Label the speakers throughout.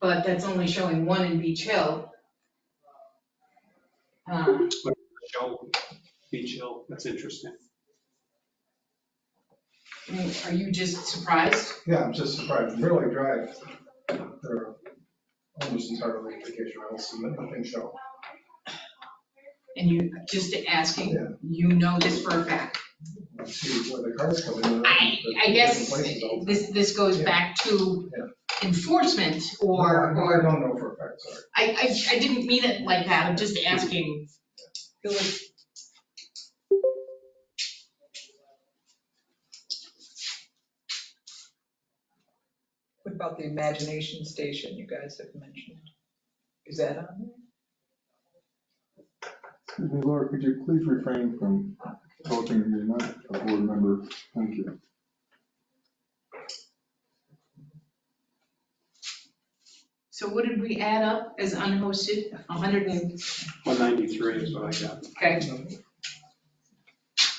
Speaker 1: but that's only showing one in Beach Hill. Um,
Speaker 2: Show, Beach Hill, that's interesting.
Speaker 1: I mean, Are you just surprised?
Speaker 3: Yeah, I'm just surprised, Fairleigh Drive, they're almost entirely vacation rentals, and nothing show.
Speaker 1: And you, just asking,
Speaker 3: Yeah.
Speaker 1: you know this for a fact?
Speaker 3: I See where the cars come in. and out,
Speaker 1: I,
Speaker 3: but
Speaker 1: I guess
Speaker 3: different places all the
Speaker 1: this, this goes back to
Speaker 3: Yeah.
Speaker 1: enforcement
Speaker 3: time.
Speaker 1: or,
Speaker 3: No, I
Speaker 1: or,
Speaker 3: don't know for a fact, sorry.
Speaker 1: I, I, I didn't mean it like that, I'm just asking.
Speaker 4: What about the imagination station you guys have mentioned? Is that on there?
Speaker 5: Excuse me, Laura, could you please refrain from talking? You're not a board member. Thank you.
Speaker 1: So what did we add up as unhosted? A hundred and,
Speaker 2: 193 is what I got.
Speaker 1: okay,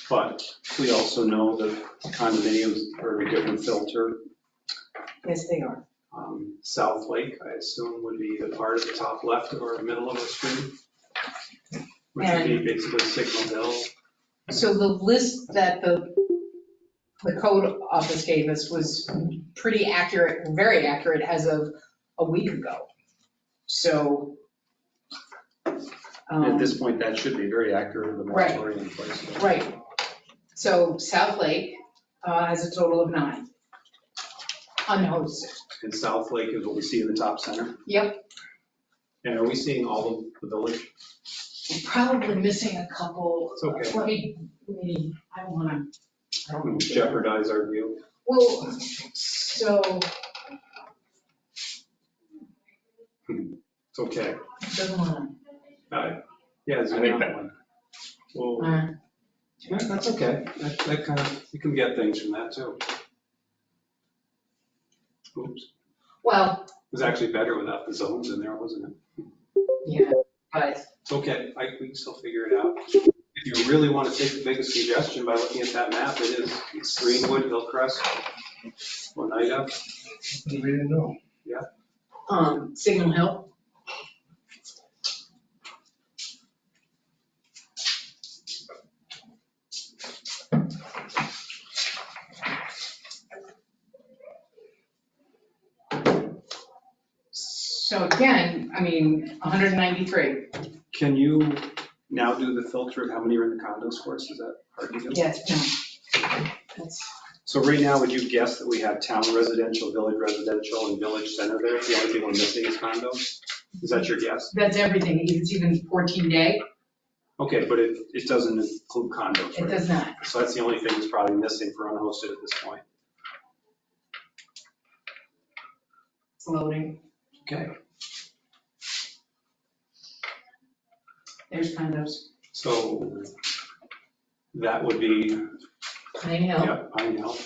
Speaker 2: But we also know that condominiums are a different filter.
Speaker 6: Yes, they are.
Speaker 2: Um, South Lake, I assume, would be the part at the top left or middle of the screen, which would be basically Signal Hill.
Speaker 6: So the list that the, the code office gave us was pretty accurate, very accurate as of a week ago. So.
Speaker 2: And At
Speaker 6: um,
Speaker 2: this point, that should be very accurate, the
Speaker 6: Right.
Speaker 2: moratorium in place.
Speaker 6: Right. So South Lake uh, has a total of nine. Unhosted.
Speaker 2: And South Lake is what we see in the top center.
Speaker 6: Yep.
Speaker 2: And are we seeing all of the village?
Speaker 6: We're Probably missing a couple.
Speaker 2: It's okay.
Speaker 6: Let me, let me, I wanna,
Speaker 2: I don't want to jeopardize our view.
Speaker 6: well, so,
Speaker 2: It's okay.
Speaker 6: doesn't wanna,
Speaker 2: Uh, Yeah, zoom
Speaker 7: I think
Speaker 2: out
Speaker 7: that-
Speaker 2: one. Well,
Speaker 6: uh,
Speaker 2: yeah, that's okay. That, that kind of, you can get things from that too. Oops, it
Speaker 6: well,
Speaker 2: was actually better without the zones in there, wasn't it?
Speaker 6: yeah, but,
Speaker 2: It's okay, I, we can still figure it out. If you really want to take the biggest suggestion by looking at that map, it is it's Greenwood, Hillcrest, Oneida.
Speaker 3: We didn't know.
Speaker 6: um, Signal Hill. So again, I mean, 193,
Speaker 2: Can you now do the filter of how many are in the condos for us? Is that hard to do?
Speaker 6: yes, no. That's,
Speaker 2: So right now, would you guess that we have town residential, village residential, and village center there? The only thing we're missing is condos? Is that your guess?
Speaker 1: that's everything, it's even 14 day,
Speaker 2: Okay, but it, it doesn't include condos,
Speaker 1: it
Speaker 2: right?
Speaker 1: does not.
Speaker 2: So that's the only thing that's probably missing for unhosted at this point.
Speaker 1: It's loading,
Speaker 2: Okay.
Speaker 1: there's condos,
Speaker 2: So that would be,
Speaker 1: Pine Hill,
Speaker 2: yeah, Pine Hill.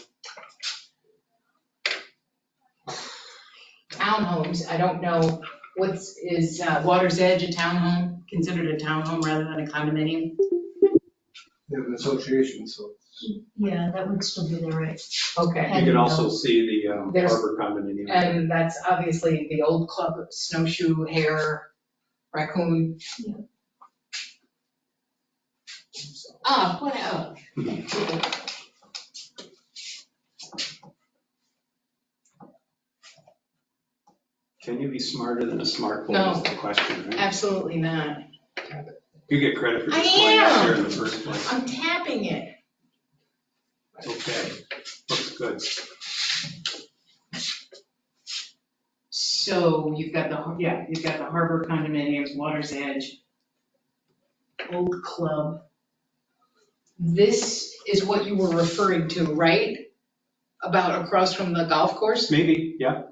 Speaker 1: townhomes, I don't know what's, is uh, Water's Edge a townhome, considered a townhome rather than a condominium?
Speaker 3: They have an association, so
Speaker 8: Yeah, that would still be the right.
Speaker 1: Okay.
Speaker 2: You can also see the um,
Speaker 1: There's-
Speaker 2: harbor condominium.
Speaker 1: And that's obviously the old club, snowshoe, hare, raccoon.
Speaker 8: Yeah.
Speaker 1: Ah, oh. what else?
Speaker 2: Can you be smarter than a smart boy
Speaker 1: No.
Speaker 2: is the question, right?
Speaker 1: Absolutely not.
Speaker 2: You get credit for
Speaker 1: I
Speaker 2: just pointing out
Speaker 1: am.
Speaker 2: there in the first place.
Speaker 1: I'm tapping it.
Speaker 2: Okay, looks good.
Speaker 1: So you've got the, har- yeah, you've got the harbor condominiums, water's edge, old club. This is what you were referring to, right? About across from the golf course?
Speaker 2: Maybe, yeah.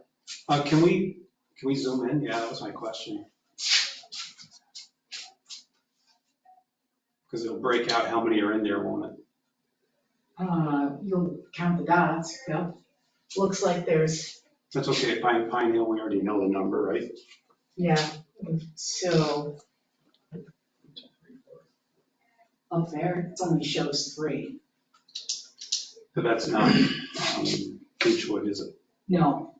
Speaker 2: Uh, Can we, can we zoom in? Yeah, that was my question. Because it'll break out how many are in there, won't it?
Speaker 1: Uh, you'll count the dots, yeah. Looks like there's,
Speaker 2: That's okay, Pine, Pine Hill, we already know the number, right?
Speaker 1: yeah, so. Up there, it only shows three.
Speaker 2: But that's not um, Beechwood, is it?
Speaker 1: No,